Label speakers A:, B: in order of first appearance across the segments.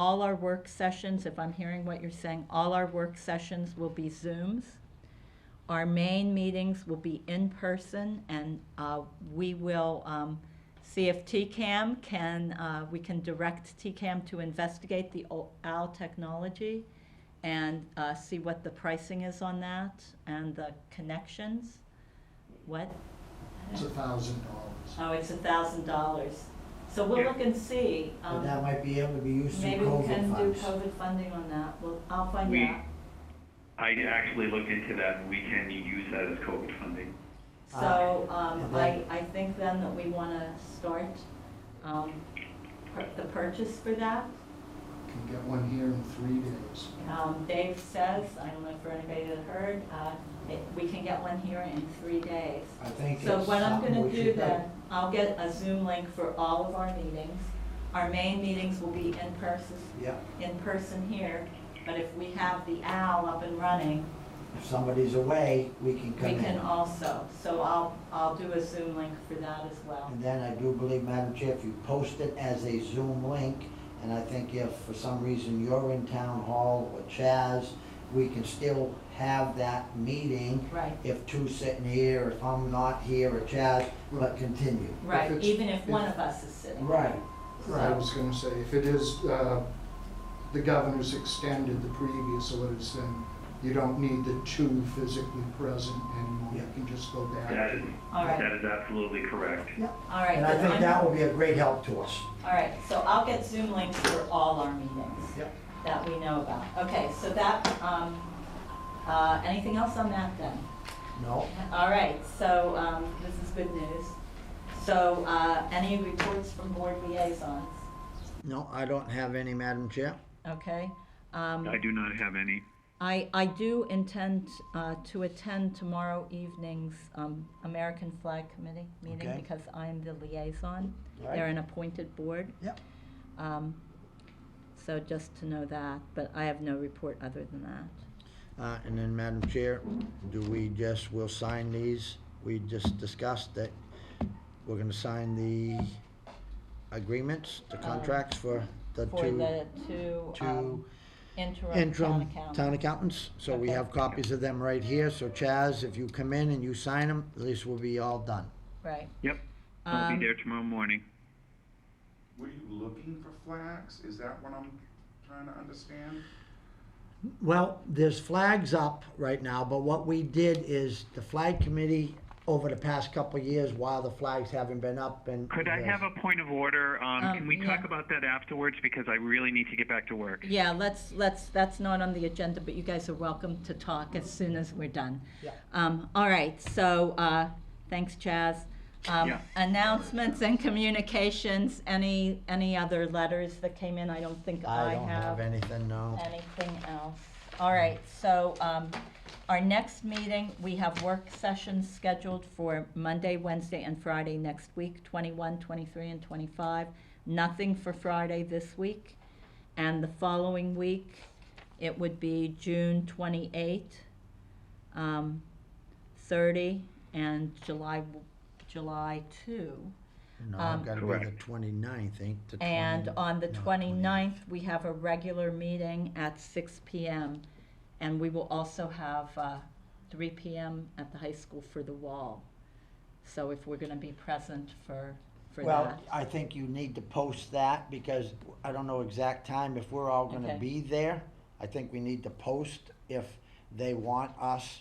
A: all our work sessions, if I'm hearing what you're saying, all our work sessions will be Zooms. Our main meetings will be in person, and uh, we will um, see if TCAM can, uh, we can direct TCAM to investigate the O- OWL technology and uh, see what the pricing is on that and the connections. What?
B: It's a thousand dollars.
A: Oh, it's a thousand dollars. So we'll look and see.
C: But
A: um,
C: that might be able to be used through
A: Maybe we
C: COVID
A: can do
C: funds.
A: COVID funding on that. Well, I'll find
D: We-
A: out.
D: I actually looked into that, and we can use that as COVID funding.
A: So,
C: Uh,
A: um,
C: and
A: I,
C: then-
A: I think then that we wanna start, um, pur- the purchase for that.
B: Can get one here in three days.
A: Um, Dave says, I don't know if anybody had heard, uh, it- we can get one here in three days.
C: I think it's
A: So what I'm
C: something
A: gonna
C: we
A: do
C: should
A: then,
C: do.
A: I'll get a Zoom link for all of our meetings. Our main meetings will be in person,
C: Yep,
A: in person here, but if we have the owl up and running,
C: if somebody's away, we can come
A: We
C: in.
A: can also, so I'll, I'll do a Zoom link for that as well.
C: And then I do believe, Madam Chair, if you post it as a Zoom link, and I think if for some reason you're in Town Hall or Chaz, we can still have that meeting
A: Right,
C: if two's sitting here, if I'm not here or Chaz, but continue.
A: right,
B: it's-
A: even if one
B: if-
A: of us is sitting.
C: Right,
B: I
C: right,
B: was gonna say, if it is, uh, the governor's extended the previous orders, then you don't need the two physically present anymore. You
C: Yeah.
B: can just go back.
D: That
B: to
D: is,
A: All right.
D: that is absolutely correct.
A: All right.
C: and I
A: then
C: think
A: I'm-
C: that will be a great help to us.
A: All right, so I'll get Zoom links for all our meetings.
C: Yep.
A: That we know about. Okay, so that, um, uh, anything else on that then?
C: No?
A: All right, so, um, this is good news. So, uh, any reports from board liaisons?
C: No, I don't have any, Madam Chair.
A: Okay, um.
D: I do not have any.
A: I, I do intend uh, to attend tomorrow evening's um, American Flag Committee meeting
C: Okay.
A: because I'm the liaison.
C: Right.
A: They're an appointed board.
C: Yep.
A: Um, So just to know that, but I have no report other than that.
C: Uh, and then, Madam Chair, do we just, we'll sign these? We just discussed that we're gonna sign the agreements, the contracts for the
A: Um, For the
C: two,
A: two um,
C: two
A: interim town
C: interim town
A: accountants.
C: accountants. So we
A: Okay.
C: have copies of them right here, so Chaz, if you come in and you sign them, at least we'll be all done.
A: Right.
D: Yep, I'll
A: Um,
D: be there tomorrow morning.
E: Were you looking for flags? Is that what I'm trying to understand?
C: Well, there's flags up right now, but what we did is the flag committee over the past couple of years, while the flags haven't been up and.
D: Could I have a point of order? Um,
A: Um,
D: can we talk
A: yeah.
D: about that afterwards, because I really need to get back to work?
A: Yeah, let's, let's, that's not on the agenda, but you guys are welcome to talk as soon as we're done.
C: Yeah.
A: Um, all right, so, uh, thanks, Chaz. Um,
D: Yeah.
A: announcements and communications, any, any other letters that came in? I don't think I
C: I don't have
A: have
C: anything, no.
A: anything else. All right, so, um, our next meeting, we have work sessions scheduled for Monday, Wednesday, and Friday next week, 21, 23, and twenty-five. Nothing for Friday this week. And the following week, it would be June twenty-eight, um, thirty, and July, July two.
C: No,
A: Um,
C: I've got to be the
D: Correct.
C: 29th, I think. the
A: And
C: 20
A: on the
C: no,
A: 29th, we have a regular meeting at six PM. And we will also have uh, three PM at the high school for the wall. So if we're going to be present for, for
C: Well,
A: that.
C: I think you need to post that because I don't know exact time if we're all going to
A: Okay.
C: be there. I think we need to post if they want us.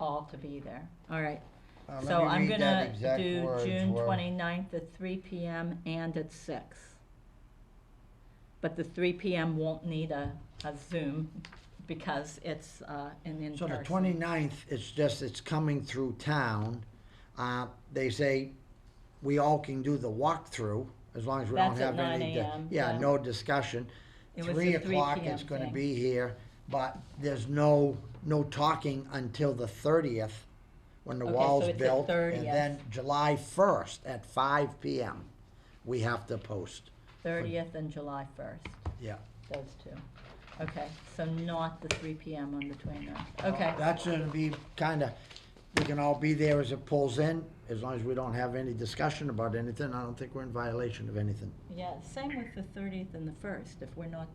A: all to be there. All right.
C: Uh, let
A: So
C: me
A: I'm
C: read
A: going
C: that
A: to
C: exact
A: do
C: words
A: June
C: were-
A: 29th at 3 PM and at 6. But the 3 PM won't need a, a Zoom because it's uh, an
C: So
A: in-person.
C: the 29th, it's just, it's coming through town. Uh, They say we all can do the walkthrough as long as we don't
A: That's at
C: have
A: 9
C: any. di-
A: a.m., yeah.
C: Yeah, no discussion.
A: It was
C: Three
A: the 3
C: o'clock,
A: p.m.
C: it's gonna
A: thing.
C: be here, but there's no, no talking until the thirtieth, when the
A: Okay, so
C: wall's
A: it's the
C: built.
A: 30th.
C: And then July first at five PM, we have to post.
A: 30th and July 1st.
C: Yeah.
A: Those two. Okay, so not the three PM on the 29th. Okay,
C: That's gonna be kinda, we can all be there as it pulls in, as long as we don't have any discussion about anything, I don't think we're in violation of anything.
A: Yeah, same with the thirtieth and the first, if we're not